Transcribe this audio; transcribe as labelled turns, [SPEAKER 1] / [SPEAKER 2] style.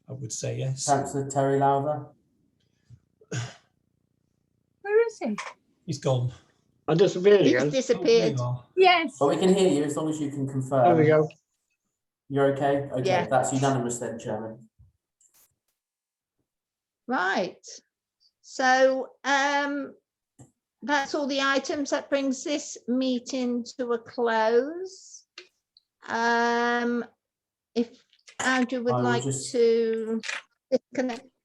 [SPEAKER 1] would say yes.
[SPEAKER 2] Councillor Terry Lowther.
[SPEAKER 3] Where is he?
[SPEAKER 1] He's gone.
[SPEAKER 4] I disappeared
[SPEAKER 5] He's
[SPEAKER 4] again.
[SPEAKER 5] disappeared.
[SPEAKER 1] Oh,
[SPEAKER 3] Yes.
[SPEAKER 2] But we can hear you as long as you can confirm.
[SPEAKER 4] There we go.
[SPEAKER 2] You're okay? Okay,
[SPEAKER 5] Yeah.
[SPEAKER 2] that's unanimous then, Chairman.
[SPEAKER 5] Right. So um, that's all the items. That brings this meeting to a close. Um, if Andrew
[SPEAKER 2] I
[SPEAKER 5] would
[SPEAKER 2] will
[SPEAKER 5] like
[SPEAKER 2] just-
[SPEAKER 5] to disconnect